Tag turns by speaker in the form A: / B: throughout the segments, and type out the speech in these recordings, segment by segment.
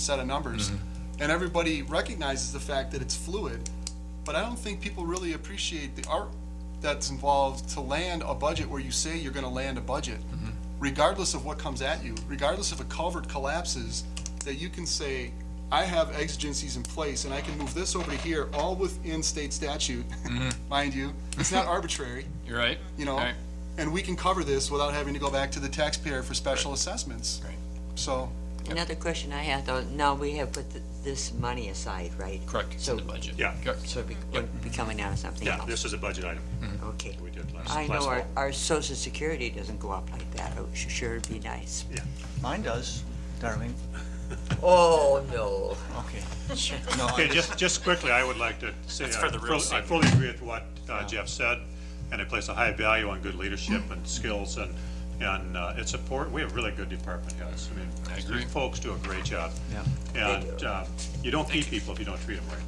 A: set of numbers.
B: Mm-hmm.
A: And everybody recognizes the fact that it's fluid, but I don't think people really appreciate the art that's involved to land a budget where you say you're gonna land a budget,
B: Mm-hmm.
A: regardless of what comes at you, regardless if a culvert collapses, that you can say, I have exigencies in place and I can move this over to here, all within state statute, mind you. It's not arbitrary
B: You're right.
A: you know,
B: Mm-hmm. Right.
A: and we can cover this without having to go back to the taxpayer for special assessments.
B: Right.
A: So,
C: Another question I had though, now we have put th- this money aside, right?
B: Correct, it's in
C: So,
B: the budget.
D: Yeah.
B: Correct.
C: so it be- would be coming out of something
D: Yeah,
C: else?
D: this is a budget item
B: Hmm.
C: Okay.
D: we did last,
C: I
D: last
C: know our,
D: fall.
C: our social security doesn't go up like that, it should sure would be nice.
E: Mine does, darling.
C: Oh, no.
E: Okay. No, I
D: Okay, just, just quickly, I would like to say, I
B: for the real
D: fully, I
B: savings.
D: fully agree with what uh, Jeff said, and I place a high value on good leadership
B: Hmm.
D: and skills and, and uh, it's support, we have really good department heads. I mean,
B: I
D: these
B: agree.
D: Folks do a great job.
E: Yeah.
D: And uh, you don't keep people if you don't treat them right.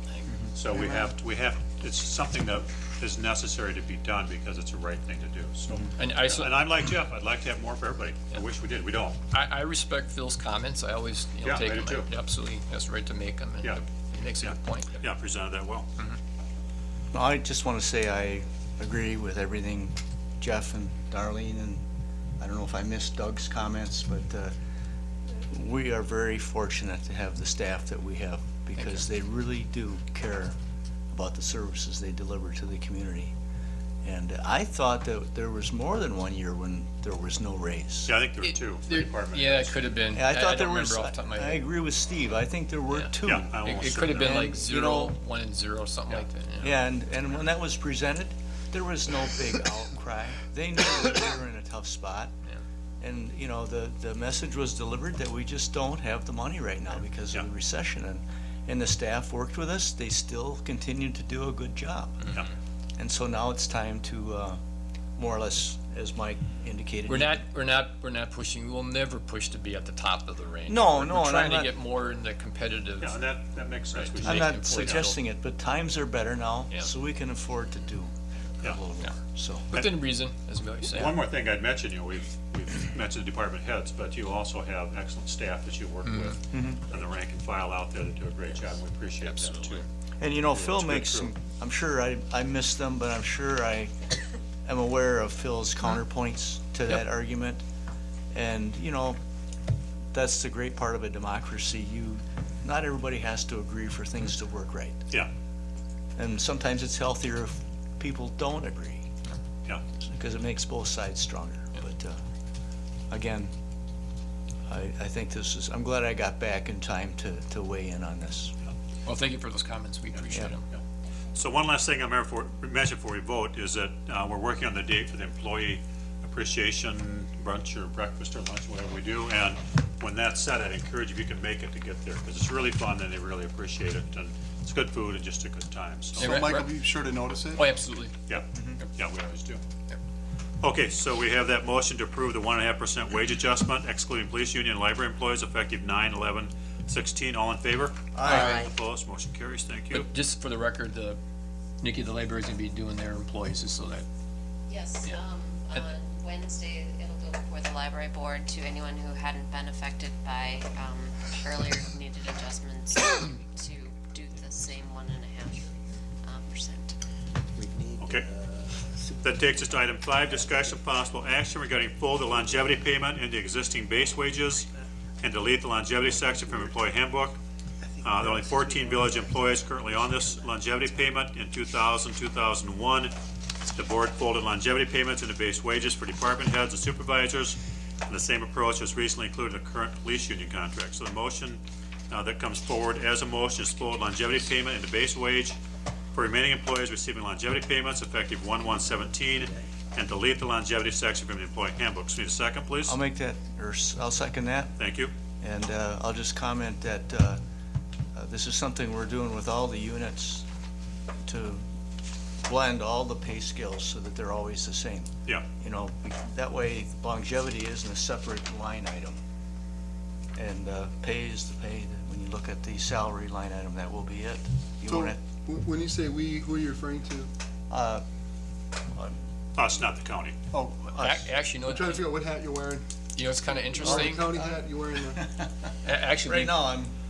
D: So we have, to- we have, it's something that is necessary to be done because it's the right thing to do, so.
B: And I, so-
D: And I'm like Jeff, I'd like to have more for everybody. I wish we did, we don't.
B: I, I respect Phil's comments. I always, you know,
D: Yeah,
B: take
D: I do
B: them.
D: too.
B: Absolutely, has the right to make them. and
D: Yeah.
B: He makes a good
D: Yeah.
B: point.
D: Yeah, presented that well.
E: No, I just want to say I agree with everything Jeff and Darlene, and I don't know if I missed Doug's comments, but uh, we are very fortunate to have the staff that we have because they really do care about the services they deliver to the community. And I thought that there was more than one year when there was no raise.
D: Yeah, I think there were two for
B: There-
D: department.
B: Yeah, it could have been.
E: And I
B: don't
E: thought there
B: remember
E: was,
B: off the top of my
E: I
B: head.
E: agree with Steve, I think there were
B: Yeah.
E: two.
D: Yeah, I
B: It-
D: almost
B: It
D: said
B: could have been
E: And,
B: like
E: you
B: zero,
E: know-
B: one and zero, something like that. yeah.
E: Yeah, and, and when that was presented, there was no big outcry. They knew that we were in a tough spot. And, you know, the, the message was delivered that we just don't have the money right now because of the
D: Yeah.
E: recession. And, and the staff worked with us, they still continued to do a good job.
D: Yeah.
E: And so now it's time to, uh, more or less, as Mike indicated.
B: We're not, we're not, we're not pushing, we'll never push to be at the top of the range.
E: No,
B: We're-
E: no,
B: We're
E: and
B: trying
E: I'm
B: to
E: not-
B: get more in the competitive.
D: Yeah, and that, that makes sense.
B: Right.
D: We
B: I'm
D: should-
E: I'm
B: They can afford
E: not
B: to-
E: suggesting it, but times are better now,
B: Yeah.
E: so we can afford to do a
D: Yeah.
E: little more, so.
B: Within reason, as Billy
D: One
B: said.
D: more thing I'd mention, you know, we've, we've mentioned department heads, but you also have excellent staff that you work
E: Mm-hmm.
D: with, and the rank and file out there that do a great job, and we appreciate them too.
B: Absolutely.
E: And you know, Phil
D: it's good
E: makes
D: crew.
E: some, I'm sure I, I missed them, but I'm sure I am aware of Phil's counterpoints to that argument. And, you know, that's the great part of a democracy. You, not everybody has to agree for things to work right.
D: Yeah,
E: And sometimes it's healthier if people don't agree,
D: yeah,
E: because it makes both sides stronger. But, uh, again, I, I think this is, I'm glad I got back in time to, to weigh in on this.
B: Well, thank you for those comments. We appreciate
E: Yeah.
B: them.
D: yeah. So one last thing I'm here for, mention before we vote, is that, uh, we're working on the date for the employee appreciation brunch or breakfast or lunch, whatever we do, and when that's set, I'd encourage if you can make it to get there, because it's really fun and they really appreciate it, and it's good food and just a good time, so.
B: Yeah,
A: so
B: right,
A: Mike will
B: right.
A: be sure to notice it.
B: Oh, absolutely.
D: Yeah, yeah, we Mm-hmm. always do. Okay, so we have that motion to approve the one and a half percent wage adjustment excluding police union and library employees effective nine, eleven, sixteen. All in favor?
C: Aye.
D: Opposed? Motion carries. Thank you.
B: But just for the record, the, Nikki, the library's gonna be doing their employees, just so that
F: Yes,
B: Yeah.
F: um,
B: And-
F: on Wednesday, it'll go before the library board to anyone who hadn't been affected by, um, earlier needed adjustments to do the same one and a half, um, percent.
D: Okay. That takes us to item five, discussion of possible action regarding full the longevity payment into existing base wages and delete the longevity section from employee handbook. Uh, there are only fourteen village employees currently on this longevity payment in 2000, 2001. The board folded longevity payments into base wages for department heads and supervisors. And the same approach was recently included in the current police union contract. So the motion, uh, that comes forward as a motion is fold longevity payment into base wage for remaining employees receiving longevity payments effective one one seventeen and delete the longevity section from the employee handbook. So Need a second, please?
E: I'll make that, or s- I'll second that.
D: Thank you.
E: And uh, I'll just comment that uh, uh, this is something we're doing with all the units to blend all the pay scales so that they're always the same.
D: Yeah,
E: You know, we- that way longevity isn't a separate line item. And uh, pay is the pay, when you look at the salary line item, that will be it. You
A: So,
E: want it,
A: wh- when you say we, who are you referring to?
E: uh,
D: us, not the county.
A: Oh,
E: us.
B: Ac- Actually, no,
A: I'm trying to figure out what hat you're wearing.
B: you know, it's kind of
A: Orange
B: interesting. A-
A: County hat, you're wearing the,
B: Actually,
E: Right
B: we-
E: now, I'm